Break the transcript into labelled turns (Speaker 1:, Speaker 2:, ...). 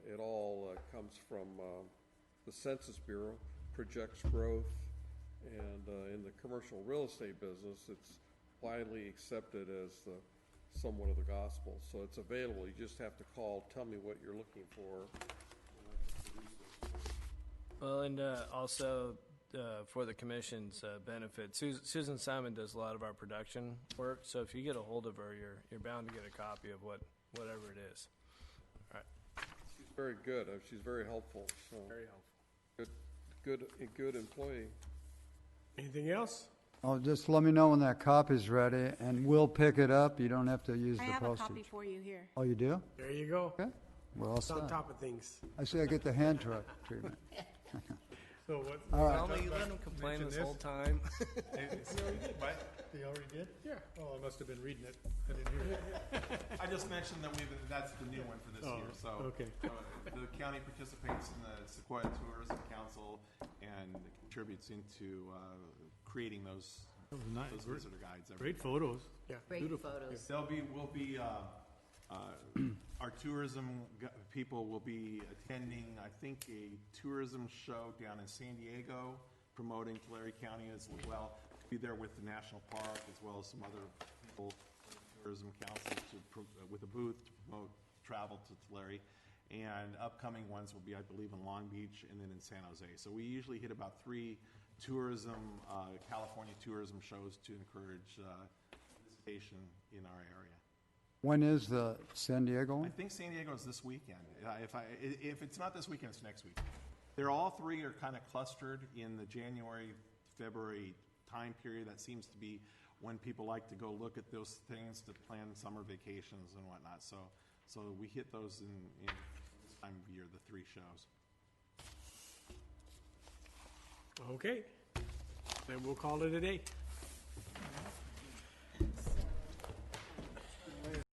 Speaker 1: comes from um, the Census Bureau, projects growth, and uh, in the commercial real estate business, it's widely accepted as the, somewhat of the gospel. So it's available, you just have to call, tell me what you're looking for.
Speaker 2: Well, and uh, also uh, for the commission's uh, benefit, Sus- Susan Simon does a lot of our production work. So if you get a hold of her, you're you're bound to get a copy of what whatever it is.
Speaker 1: She's very good, uh, she's very helpful, so,
Speaker 2: helpful.
Speaker 1: good, good, a good employee.
Speaker 3: Anything else?
Speaker 4: Oh, just let me know when that copy's ready, and we'll pick it up. You don't have to use
Speaker 5: I
Speaker 4: the
Speaker 5: have a copy
Speaker 4: postage.
Speaker 5: for you here.
Speaker 4: Oh, you do?
Speaker 3: There you go.
Speaker 4: Okay, we're all
Speaker 3: It's on
Speaker 4: set.
Speaker 3: top of things.
Speaker 4: I see I get the hand truck treatment.
Speaker 3: So what?
Speaker 4: All
Speaker 2: Tell
Speaker 4: right,
Speaker 2: me you let him complain
Speaker 3: Mention
Speaker 2: this
Speaker 3: this?
Speaker 2: whole time.
Speaker 3: What? They already did? Yeah. Oh, I must have been reading it. I didn't hear it.
Speaker 6: I just mentioned that we've, that's the new one for this
Speaker 3: Oh,
Speaker 6: year, so.
Speaker 3: okay.
Speaker 6: uh, The county participates in the Sequoia Tourism Council and contributes into, uh, creating those,
Speaker 3: Oh, nice.
Speaker 6: those visitor guides. every
Speaker 3: Great photos. Yeah.
Speaker 7: Great photos.
Speaker 6: There'll be, will be, uh, uh, our tourism gu- people will be attending, I think, a tourism show down in San Diego promoting Tulare County as well. Be there with the national park as well as some other people, tourism council to, pro- with a booth to promote travel to Tulare. And upcoming ones will be, I believe, in Long Beach and then in San Jose. So we usually hit about three tourism, uh, California tourism shows to encourage, uh, visitation in our area.
Speaker 4: when is the San Diego
Speaker 6: I
Speaker 4: one?
Speaker 6: think San Diego is this weekend. Uh, If I, i- if it's not this weekend, it's next week. They're all three are kind of clustered in the January, February time period. That seems to be when people like to go look at those things to plan summer vacations and whatnot. So, so we hit those in, in this time of year, the three shows.
Speaker 3: Okay. Then we'll call it a day.